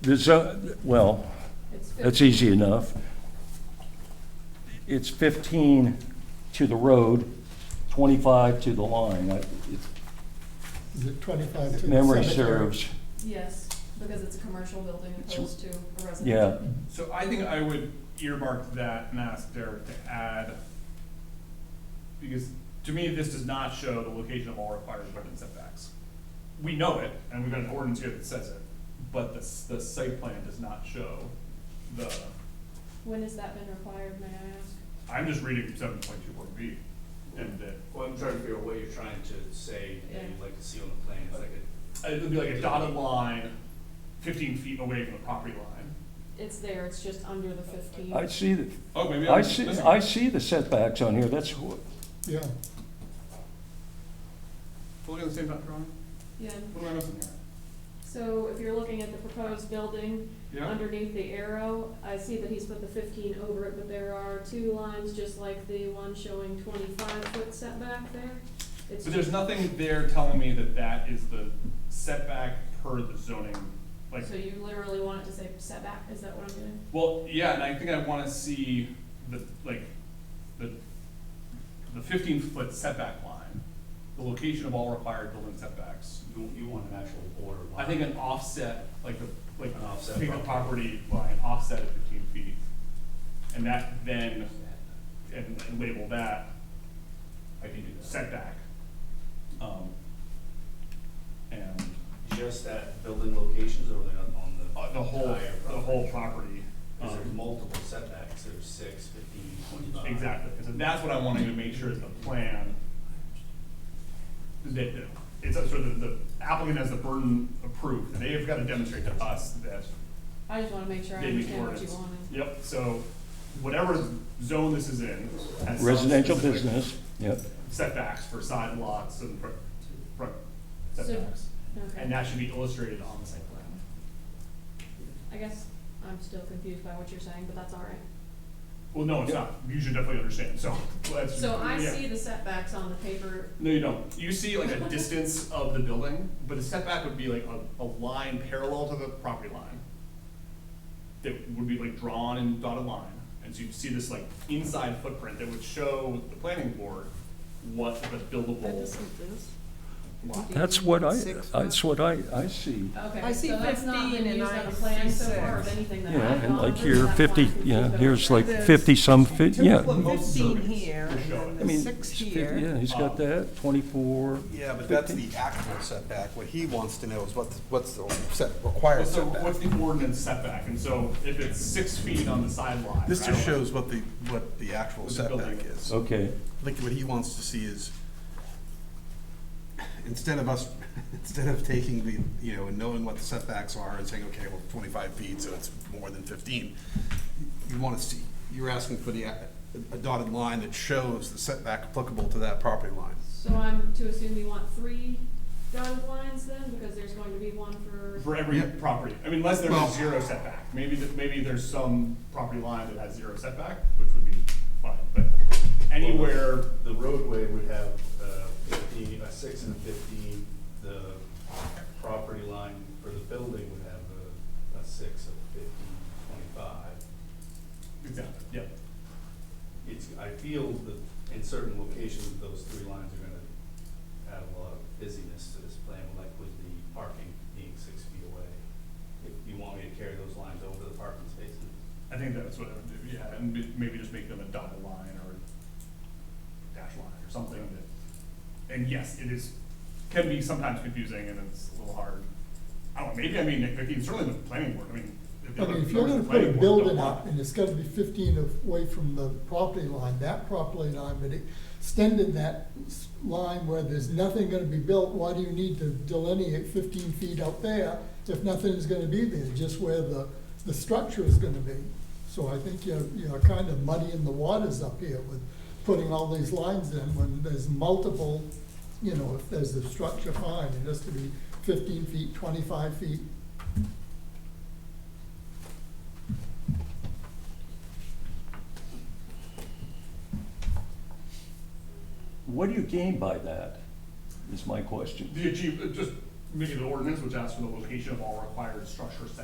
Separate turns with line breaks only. There's a, well,
It's
that's
fifty,
easy enough. It's 15 to the road, 25 to the line. I- if
Is it twenty-five to the
Memory
cemetery?
serves,
yes, because it's a commercial building
It's-
opposed to a residential.
yeah.
So I think I would earmark that and ask Derek to add, because to me, this does not show the location of all required wetland setbacks. We know it, and we've got an ordinance here that says it, but the, s- the site plan does not show the,
When has that been required, may I ask?
I'm just reading seven point two point B, and that,
Well, I'm trying to figure out what you're trying to say that you'd like to see on the plan, it's like a,
Uh, it would be like a dotted line fifteen feet away from the property line.
It's there, it's just under the fifteen.
I see, the
Oh, maybe I'm
I see,
missing
I
it.
see the setbacks on here. That's, wh-
Yeah,
Look at the same drawing,
Yeah,
what am I missing
so if you're looking at the proposed building,
here? Yeah?
underneath the arrow, I see that he's put the fifteen over it, but there are two lines, just like the one showing twenty-five foot setback there. It's
But there's nothing there telling me that that is the setback per the zoning, like,
So you literally want it to say setback, is that what I'm doing?
well, yeah, and I think I wanna see the, like, the, the fifteen foot setback line, the location of all required building setbacks.
you, you want an actual border
I
line.
think an offset, like the, like,
An offset
take the
property.
property line, offset at fifteen feet, and that then, and and label that
I can do that.
setback. Um, And
Just at building locations or are they on, on the?
Uh, the whole,
entire
the
property?
whole property.
Cause there's
Um,
multiple setbacks, there's six, fifteen, twenty-five.
Exactly, so that's what I wanted to make sure is the plan. That, that- it's a sort of the applicant has the burden of proof, and they've got to demonstrate to us that
I just wanna make sure I
they meet the
understand what you
ordinance.
wanted.
Yep, so whatever zone this is in. has some
residential
specific
business, yep.
Setbacks for side lots and front, front
So-
setbacks, and
Okay,
that should be illustrated on the site plan.
I guess I'm still confused by what you're saying, but that's all right.
Well, no, it's not, you should definitely understand, so let's.
So I
yeah.
see the setbacks on the paper,
No, you don't. You see like a distance of the building, but a setback would be like a, a line parallel to the property line. That would be like drawn in dotted line, and so you'd see this like inside footprint that would show the planning board what the buildable. lot-
That's what I,
Six
that's what I, I see.
okay,
I see
so that's not
15
been
and
used
I
on a plan
see
so far of
six.
anything that I've
Yeah, and
gone
like
through, so
here,
that's why I'm
fifty,
confused
yeah,
about
here's
that.
like
There's-
fifty some, fi- yeah.
Well, most
Fifteen
surveys
here,
will
and
show
then
it.
I mean,
Six
it's fif-
here.
Yeah, he's got that, twenty-four.
Yeah, but that's
15.
the actual setback. What he wants to know is what's, what's the set, required
So what's
setback.
the ordinance setback? And so if it's six feet on the side line.
This
right?
just shows what the, what the actual
What the building
setback is. I
Okay,
think what he wants to see is, instead of us, instead of taking the, you know, and knowing what the setbacks are and saying, okay, well, twenty-five feet, so it's more than fifteen, you want to see, you're asking for the, a- a dotted line that shows the setback applicable to that property line.
So I'm to assume you want three dotted lines then, because there's going to be one for,
For every
Yep.
property, I mean, unless there's
Well-
a zero setback, maybe, th- maybe there's some property line that has zero setback, which would be fine, but anywhere,
The roadway would have uh, fifteen, a six and a fifteen, the property line for the building would have a, a six of fifteen, twenty-five.
exactly, yeah.
It's, I feel that in certain locations, those three lines are gonna add a lot of busyness to this plan, like with the parking being six feet away. If you want me to carry those lines over the parking spaces,
I think that's what I would do, yeah, and ma- maybe just make them a dotted line or dash line or something that, and yes, it is, can be sometimes confusing and it's a little hard. I don't know, maybe, I mean, I mean, certainly the planning board, I mean. the
I
other
mean, if you're gonna
members of the
put a
planning board don't
building
want-
up and it's gotta be fifteen of- away from the property line, that property line, but extended that s- line where there's nothing gonna be built, why do you need to delineate fifteen feet out there if nothing is gonna be there, just where the, the structure is gonna be? So I think you're, you're kind of muddying the waters up here with putting all these lines in when there's multiple, you know, if there's a structure, fine, it has to be fifteen feet, twenty-five feet,
what do you gain by that, is my question.
The achieve, just making the ordinance, which asks for the location of all required structure setbacks